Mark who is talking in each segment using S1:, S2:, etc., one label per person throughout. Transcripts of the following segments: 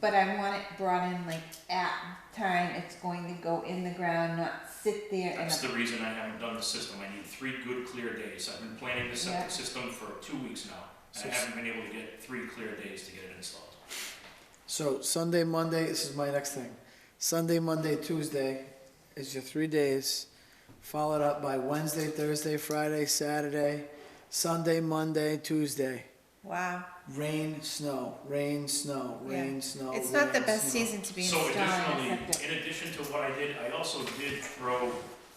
S1: but I want it brought in like at time it's going to go in the ground, not sit there
S2: That's
S1: and.
S2: the reason I haven't done the system. I need three good clear days. I've been planning the
S1: Yeah.
S2: septic system for two weeks now.
S3: So
S2: And I
S3: s-
S2: haven't been able to get three clear days to get it installed.
S3: So Sunday, Monday, this is my next thing. Sunday, Monday, Tuesday is your three days, followed up by Wednesday, Thursday, Friday, Saturday, Sunday, Monday, Tuesday.
S1: Wow,
S3: Rain, snow, rain, snow,
S1: Yeah.
S3: rain, snow.
S1: it's not the
S3: rain,
S1: best
S3: snow.
S1: season to be
S2: Oh, So
S1: installing
S2: additionally,
S1: a septic.
S2: in addition to what I did, I also did throw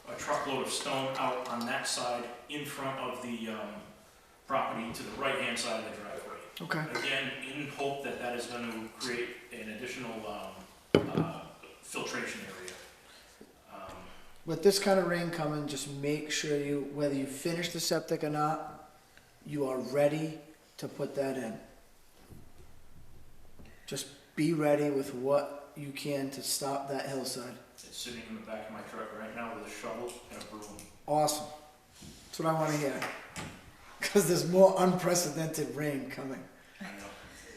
S2: a truckload of stone out on that side in front of the, um, property to the right-hand side of the driveway.
S3: Okay.
S2: Again, in hope that that is going to create an additional um, uh, filtration area. Um,
S3: With this kind of rain coming, just make sure you, whether you finish the septic or not, you are ready to put that in. Just be ready with what you can to stop that hillside.
S2: It's sitting in the back of my truck right now with a shovel and a broom.
S3: Awesome. That's what I want to hear. Because there's more unprecedented rain coming.
S2: I know.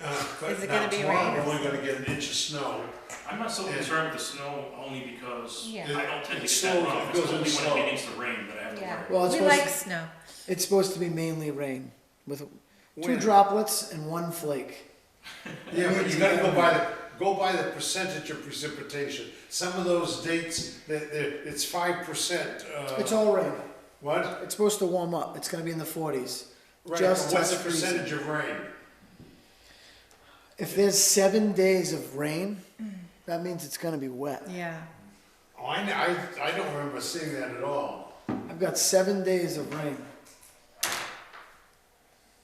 S4: Uh, but
S1: Is it
S4: now
S1: gonna be
S4: tomorrow,
S1: rain?
S4: We're only gonna get an inch of snow.
S2: I'm not so concerned with the snow only because I
S1: Yeah.
S2: don't tend to
S4: It-
S2: get
S4: it
S2: that
S4: slows-
S2: wrong.
S4: it
S2: It's
S4: goes in
S2: only when
S4: slow.
S2: it begins to rain that I have to
S1: Yeah.
S2: worry.
S3: Well, it's
S1: We
S3: supposed,
S1: like snow.
S3: it's supposed to be mainly rain with two
S4: Wind.
S3: droplets and one flake.
S4: Yeah, but
S3: it's
S4: you gotta
S3: gonna
S4: go
S3: be-
S4: by the, go by the percentage of precipitation. Some of those dates, that, that, it's five percent,
S3: It's
S4: uh,
S3: all rain.
S4: what?
S3: It's supposed to warm up. It's going to be in the 40s.
S4: Right,
S3: Just
S4: what's the
S3: touch freezing.
S4: percentage of rain?
S3: If there's seven days of rain, that means it's going to be wet.
S1: Yeah.
S4: Oh, I, kn- I, I don't remember seeing that at all.
S3: I've got seven days of rain.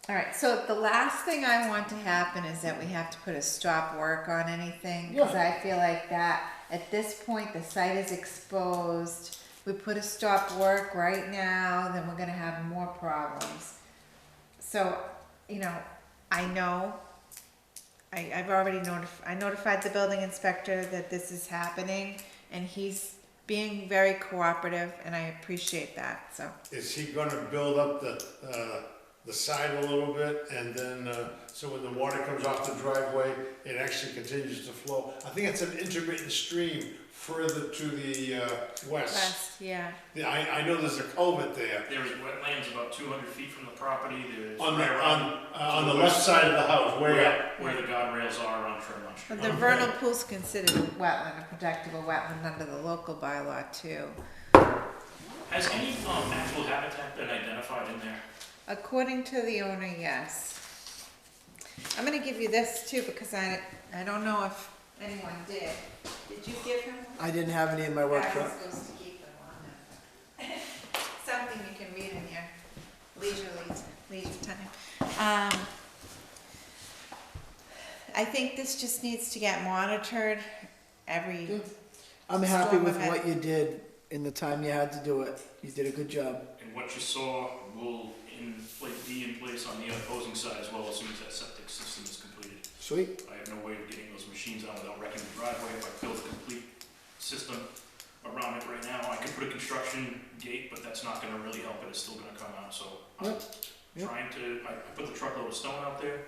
S1: All right, so the last thing I want to happen is that we have to put a stop work on anything, because
S3: Yeah.
S1: I feel like that, at this point, the site is exposed. We put a stop work right now, then we're gonna have more problems. So, you know, I know, I, I've already notified, I notified the building inspector that this is happening, and he's being very cooperative, and I appreciate that, so.
S4: Is he gonna build up the, uh, the side a little bit and then, uh, so when the water comes off the driveway, it actually continues to flow? I think it's an intermittent stream further to the, uh, west.
S1: West, yeah.
S4: Yeah, I, I know there's a culvert there
S2: There's wetlands about 200 feet from the property. There's
S4: on the,
S2: right
S4: on,
S2: around
S4: uh, on the left side of the house, way up.
S2: where, where the guide rails are on Fremont Street.
S1: But the
S4: Okay.
S1: vernal pool's considered a wetland, a protectable wetland under the local bylaw too.
S2: Has any um, natural habitat been identified in there?
S1: According to the owner, yes. I'm gonna give you this too, because I, I don't know if anyone did. Did you give him?
S3: I didn't have any in my work
S1: I was
S3: truck.
S1: supposed to keep them on there. Something you can read in your leisurely, leisure time. Um, I think this just needs to get monitored every,
S3: Yeah. I'm happy
S1: Storm
S3: with
S1: event.
S3: what you did in the time you had to do it. You did a good job.
S2: And what you saw will in, like, be in place on the opposing side as well as soon as that septic system is completed.
S3: Sweet.
S2: I have no way of getting those machines out without wrecking the driveway. If I build a complete system around it right now, I could put a construction gate, but that's not gonna really help it, it's still gonna come out, so. I'm
S3: Yep, yep.
S2: Trying to, I I put the truckload of stone out there,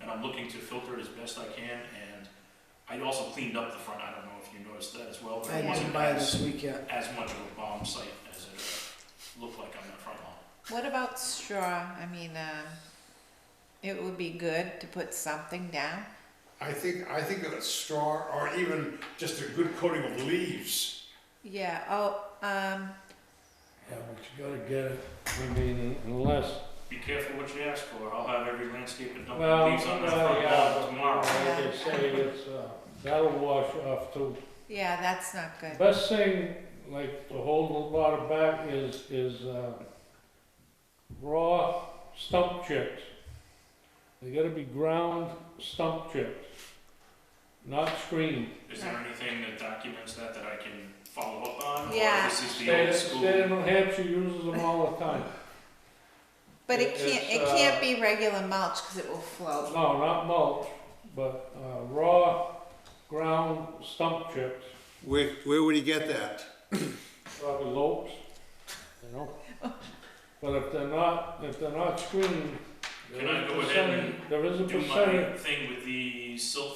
S2: and I'm looking to filter it as best I can, and I also cleaned up the front, I don't know if you noticed that as well,
S3: I
S2: but it
S3: didn't
S2: wasn't
S3: buy it
S2: as,
S3: this week yet.
S2: as much of a bomb site as it looked like on that front lawn.
S1: What about straw? I mean, um, it would be good to put something down.
S4: I think, I think that a straw or even just a good coating of leaves.
S1: Yeah, oh, um,
S5: Yeah, but you gotta get it, I mean, unless,
S2: Be careful what you ask for, I'll have every landscaper dump
S5: well,
S2: leaves on that
S5: well,
S2: front
S5: yeah,
S2: lawn
S5: but,
S2: tomorrow.
S5: like they say, it's, uh, that'll wash off too.
S1: yeah, that's not good.
S5: Best thing, like, to hold the water back is, is, uh, raw stump chips. They gotta be ground stump chips, not screened.
S2: Is there anything that documents that that I can follow up on?
S1: Yeah.
S2: Or this is the
S5: State
S2: old
S5: of- state of
S2: school?
S5: New Hampshire uses them all the time.
S1: But it
S5: It-
S1: can't, it
S5: it's, uh,
S1: can't be regular mulch because it will float.
S5: No, not mulch, but, uh, raw ground stump chips.
S4: Where, where would he get that?
S5: probably lopes, you know? But if they're not, if they're not screened, there
S2: Can I
S5: is a
S2: go ahead
S5: percentage, there is a
S2: Do
S5: percentage
S2: my thing with the silt